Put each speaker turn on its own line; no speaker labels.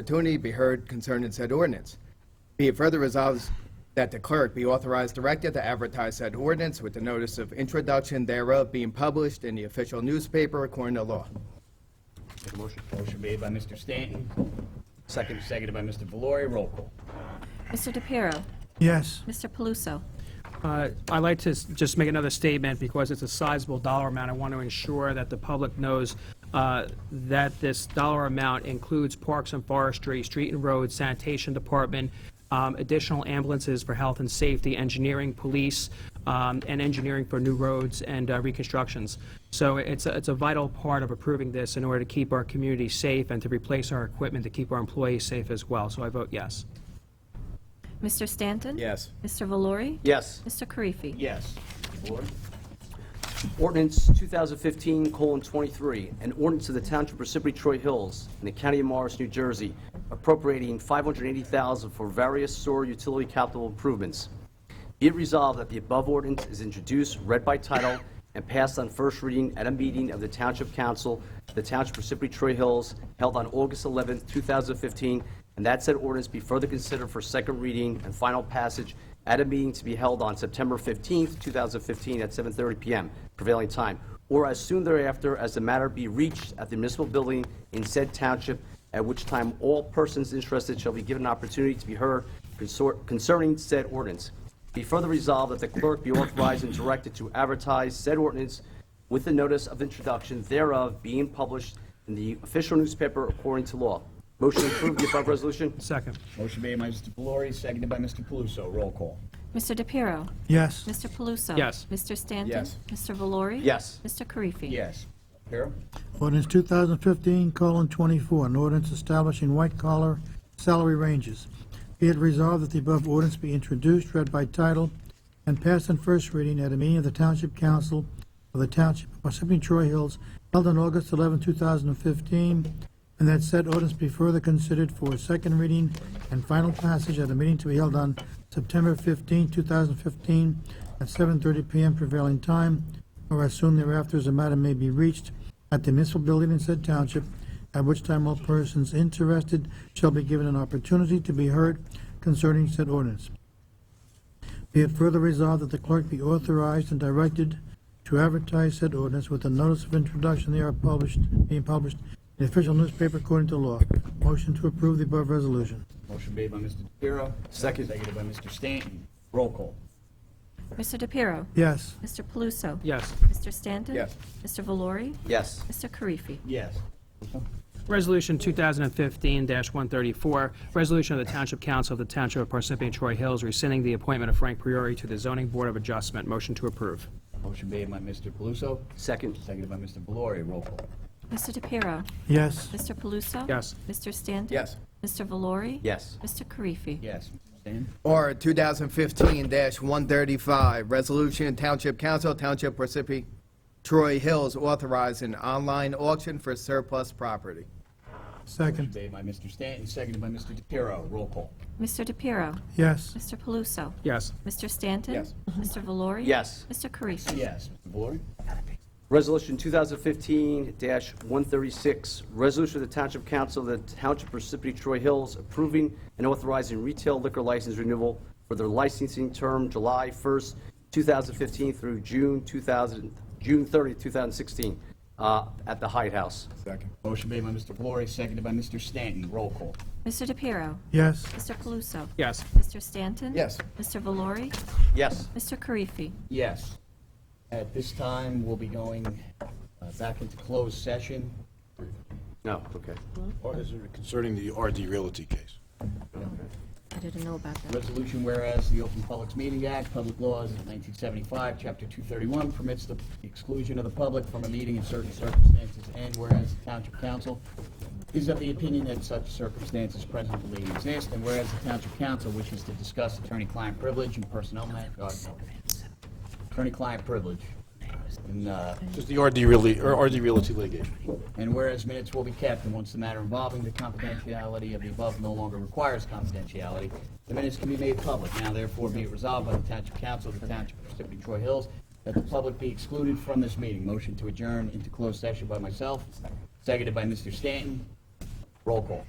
opportunity be heard concerning said ordinance. Be it further resolved that the clerk be authorized directed to advertise said ordinance with the notice of introduction thereof being published in the official newspaper according to law.
Motion. Motion made by Mr. Stanton. Second, seconded by Mr. Valori. Roll call.
Mr. DePiero,
Yes.
Mr. Paluso,
Uh, I'd like to s- just make another statement because it's a sizable dollar amount. I want to ensure that the public knows uh, that this dollar amount includes Parks and Forestry, Street and Road, Sanitation Department, um, additional ambulances for health and safety, engineering, police, um, and engineering for new roads and uh, reconstructions. So it's, a- it's a vital part of approving this in order to keep our community safe and to replace our equipment to keep our employees safe as well. So I vote yes.
Mr. Stanton?
Yes.
Mr. Valori?
Yes.
Mr. Karifi?
Yes. Mr. Valori?
Ordinance 2015:23, an ordinance of the Township of Parsippany Troy Hills in the County of Morris, New Jersey, appropriating $580,000 for various sewer utility capital improvements. Be it resolved that the above ordinance is introduced, read by title, and passed on first reading at a meeting of the Township Council, the Township of Parsippany Troy Hills, held on August 11, 2015, and that said ordinance be further considered for second reading and final passage at a meeting to be held on September 15, 2015, at 7:30 p.m. prevailing time, or as soon thereafter as the matter be reached at the municipal building in said township, at which time all persons interested shall be given an opportunity to be heard consor- concerning said ordinance. Be further resolved that the clerk be authorized and directed to advertise said ordinance with the notice of introduction thereof being published in the official newspaper according to law. Motion to approve the above resolution?
Second.
Motion made by Mr. Valori, seconded by Mr. Paluso. Roll call.
Mr. DePiero,
Yes.
Mr. Paluso?
Yes.
Mr. Stanton?
Yes.
Mr. Valori?
Yes.
Mr. Karifi?
Yes. Carol?
Ordinance 2015 colon 24, an ordinance establishing white collar salary ranges. Be it resolved that the above ordinance be introduced, read by title, and passed on first reading at a meeting of the Township Council of the Township of Parsippany Troy Hills held on August 11, 2015, and that said ordinance be further considered for second reading and final passage at a meeting to be held on September 15, 2015, at 7:30 PM prevailing time, or as soon thereafter as the matter may be reached at the municipal building in said township, at which time all persons interested shall be given an opportunity to be heard concerning said ordinance. Be it further resolved that the clerk be authorized and directed to advertise said ordinance with a notice of introduction thereof published, being published in the official newspaper according to law. Motion to approve the above resolution.
Motion made by Mr. DePiero.
Second.
Seconded by Mr. Stanton. Roll call.
Mr. DePiero,
Yes.
Mr. Paluso?
Yes.
Mr. Stanton?
Yes.
Mr. Valori?
Yes.
Mr. Karifi?
Yes.
Resolution 2015-134, resolution of the Township Council of the Township of Parsippany Troy Hills rescinding the appointment of Frank Priori to the Zoning Board of Adjustment. Motion to approve.
Motion made by Mr. Paluso,
Second?
seconded by Mr. Valori. Roll call.
Mr. DePiero,
Yes.
Mr. Paluso?
Yes.
Mr. Stanton?
Yes.
Mr. Valori?
Yes.
Mr. Karifi?
Yes. Mr. Stanton?
Or 2015-135, Resolution Township Council, Township Parsippany Troy Hills authorizing online auction for surplus property.
Motion
Second.
Made by Mr. Stanton, seconded by Mr. DePiero. Roll call.
Mr. DePiero,
Yes.
Mr. Paluso?
Yes.
Mr. Stanton?
Yes.
Mr. Valori?
Yes.
Mr. Karifi?
Yes. Mr. Valori?
Resolution 2015-136, resolution of the Township Council of the Township of Parsippany Troy Hills approving and authorizing retail liquor license renewal for their licensing term July 1st, 2015 through June 2000, June 30, 2016, uh, at the Hyatt House.
Second.
Motion made by Mr. Valori, seconded by Mr. Stanton. Roll call.
Mr. DePiero,
Yes.
Mr. Paluso?
Yes.
Mr. Stanton?
Yes.
Mr. Valori?
Yes.
Mr. Karifi?
Yes. At this time, we'll be going uh, back into closed session.
No, okay.
Or is it concerning the RD Realty case?
I didn't know about that.
Resolution whereas the Open Publics Meeting Act, Public Laws of 1975, Chapter 231 permits the exclusion of the public from a meeting in certain circumstances, and whereas the Township Council is of the opinion that such circumstances presently exist, and whereas the Township Council wishes to discuss attorney-client privilege and personnel matters, attorney-client privilege, and uh,
Just the RD Realty, or RD Realty litigation.
And whereas minutes will be kept, and once the matter involving the confidentiality of the above no longer requires confidentiality, the minutes can be made public. Now therefore be it resolved by the Township Council of the Township of Parsippany Troy Hills that the public be excluded from this meeting. Motion to adjourn into closed session by myself, seconded by Mr. Stanton. Roll call.